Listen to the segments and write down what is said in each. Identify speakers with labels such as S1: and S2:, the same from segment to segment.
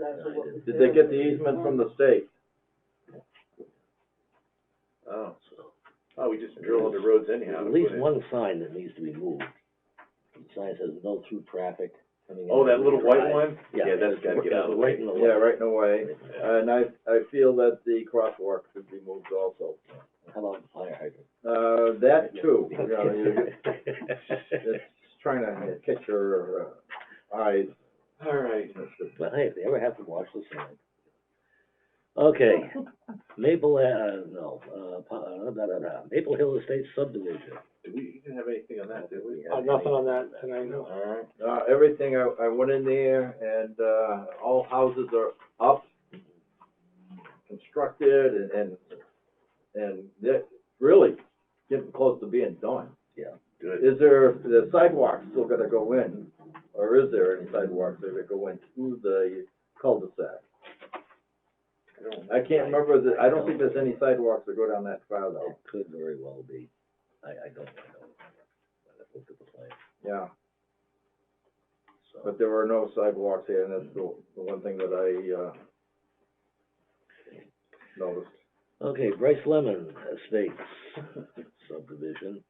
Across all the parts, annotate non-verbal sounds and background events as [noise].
S1: exactly what.
S2: Did they get the easement from the state?
S3: Oh, oh, we just drill all the roads anyhow. to
S4: At least
S3: put in.
S4: one sign that needs to be moved. The Sign says no through traffic coming in.
S3: Oh, that little white
S4: Right.
S3: one? Yeah, that's gotta get out of the way.
S4: Right in the way.
S2: Yeah, right in the way, and I, I feel that the crosswalk should be moved also.
S4: How about the fire
S3: [laughs]
S2: Uh,
S4: hydrant?
S2: that too, you know, you- it's trying to catch your uh, eyes. Uh,
S3: All right.
S4: But hey, if they ever have to watch the sign. Okay, Maple, uh, no, uh, pa- uh, da, da, da, Maple Hill Estates subdivision.
S3: Did we, you didn't have anything on that, did we?
S1: Uh, Nothing on that, and I know.
S3: All right.
S2: Uh, everything, I, I went in there and, uh, all houses are up, constructed and, and, and they're really getting close to being done.
S4: Yeah.
S3: Good.
S2: Is there, the sidewalks still gonna go in, or is there any sidewalks that are gonna go in through the cul-de-sac? I can't remember the, I don't think there's any sidewalks that go down that far though,
S4: It could very well be. I, I don't, I don't. I looked at the plan,
S2: yeah.
S4: so.
S2: But there were no sidewalks here, and that's the, the one thing that I, uh, noticed.
S4: Okay, Bryce Lemon Estates [laughs] subdivision.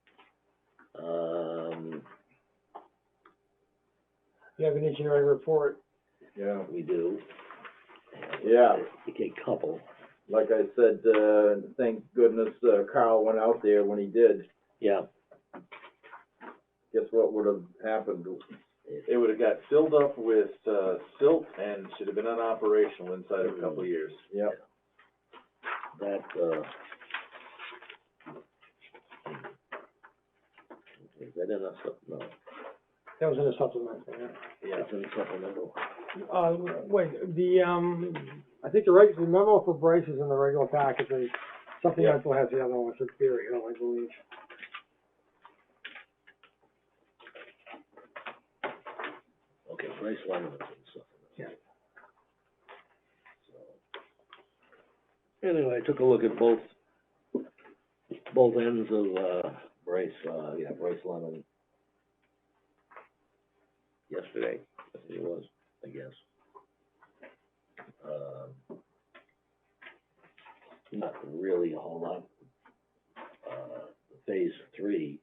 S4: Um,
S1: You have an engineering report,
S2: Yeah,
S4: we do.
S2: yeah,
S4: Okay, couple.
S2: like I said, uh, thank goodness uh, Carl went out there when he did.
S4: Yeah,
S2: Guess what would've happened?
S3: It would've got filled up with, uh, silt and should have been unoperational inside of a couple of years.
S2: Yeah,
S4: that, uh. Is that in a sup, no,
S1: that was in a supplement, yeah.
S3: Yeah.
S4: it's in supplemental.
S1: Uh, wait, the, um, I think the reg, the memo for Bryce is in the regular package, and something
S3: Yeah.
S1: else will have the other one, it's a theory, Hill, I believe.
S4: Okay, Bryce Lemon is in supplemental.
S1: Yeah.
S4: So. Anyway, I took a look at both, both ends of, uh, Bryce, uh, yeah, Bryce Lemon. Yesterday, I think it was, I guess. Um, not really a whole lot. Uh, phase three,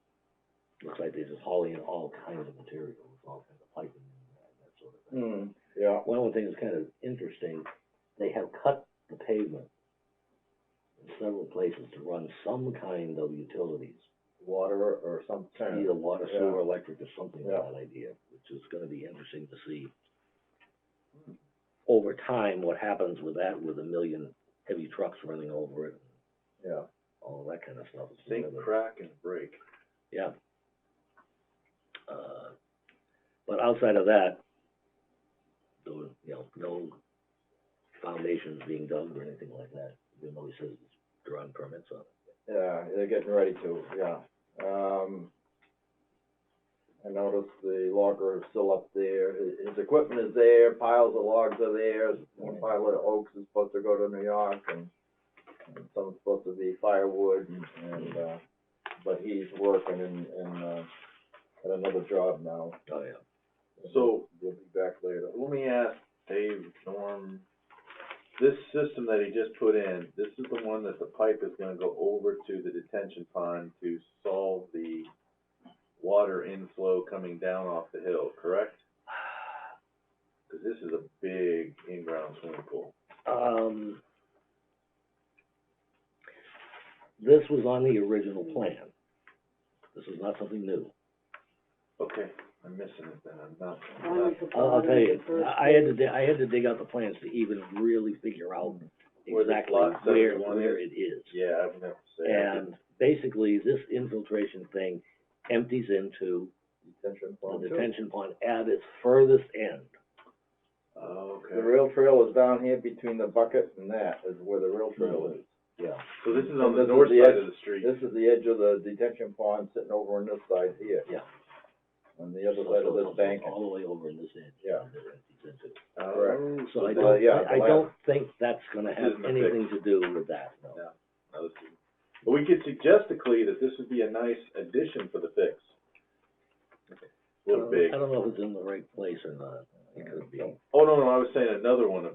S4: looks like they're just hauling in all kinds of materials, all kinds of piping and that sort of thing.
S2: hmm, yeah,
S4: One of the things that's kind of interesting, they have cut the pavement in several places to run some kind of utilities.
S2: water or some kind of.
S4: Either water,
S2: yeah.
S4: sewer, electric, or something of
S2: Yeah.
S4: that idea, which is gonna be interesting to see. Over time, what happens with that, with a million heavy trucks running over it,
S2: Yeah,
S4: all that kind of stuff. It's
S3: Sink,
S4: another-
S3: crack, and break.
S4: Yeah. Uh, But outside of that, there was, you know, no foundations being dug or anything like that, even though he says they're on permits on it.
S2: yeah, they're getting ready to, yeah. Um, I noticed the logger is still up there, his, his equipment is there, piles of logs are there, one pile of oaks is supposed to go to New York, and and some's supposed to be firewood, and- and, uh, but he's working in, in, uh, at another job now.
S4: Oh, yeah.
S3: So-
S2: We'll be back later.
S3: Let me ask Dave, Norm, this system that he just put in, this is the one that the pipe is gonna go over to the detention pond to solve the water inflow coming down off the hill, correct? Cause this is a big in-ground swimming pool.
S4: Um, this was on the original plan. This is not something new.
S3: Okay, I'm missing it then, I'm not, I'm
S5: Mine was
S3: not-
S5: the
S4: I'll, I'll
S5: bottom
S4: tell you,
S5: of the first
S4: I had to, di- I had to dig out the plans to even really figure out
S3: Where the
S4: exactly
S3: lot
S4: where,
S3: 71
S4: where
S3: is?
S4: it is.
S3: yeah, I've never said.
S4: And basically, this infiltration thing empties into
S2: Detention
S4: the
S2: pond too.
S4: detention pond at its furthest end.
S3: Oh,
S2: The
S3: okay,
S2: rail trail is down here between the bucket and that is where the rail trail is.
S4: Yeah.
S3: so this is
S2: So
S3: on
S2: this
S3: the
S2: is
S3: north
S2: the
S3: side
S2: edge-
S3: of the street,
S2: This is the edge of the detention pond sitting over on this side here.
S4: Yeah.
S2: On the other
S4: So
S2: side of
S4: it
S2: this
S4: comes
S2: bank.
S4: All the way over in this end.
S2: Yeah.
S4: and then empties into-
S3: Oh,
S2: correct.
S4: So I
S3: this-
S2: Uh,
S4: don't,
S2: yeah,
S4: I, I
S2: the
S4: don't think that's gonna
S3: This
S4: have
S3: isn't a fix.
S4: anything to do with that, no.
S3: No. No, this is- But we could suggest to Clea that this would be a nice addition for the fix.
S4: I
S3: Little
S4: don't-
S3: big.
S4: Um, I don't know if it's in the right place or not, it could be.
S3: Oh, no, no, I was saying another one of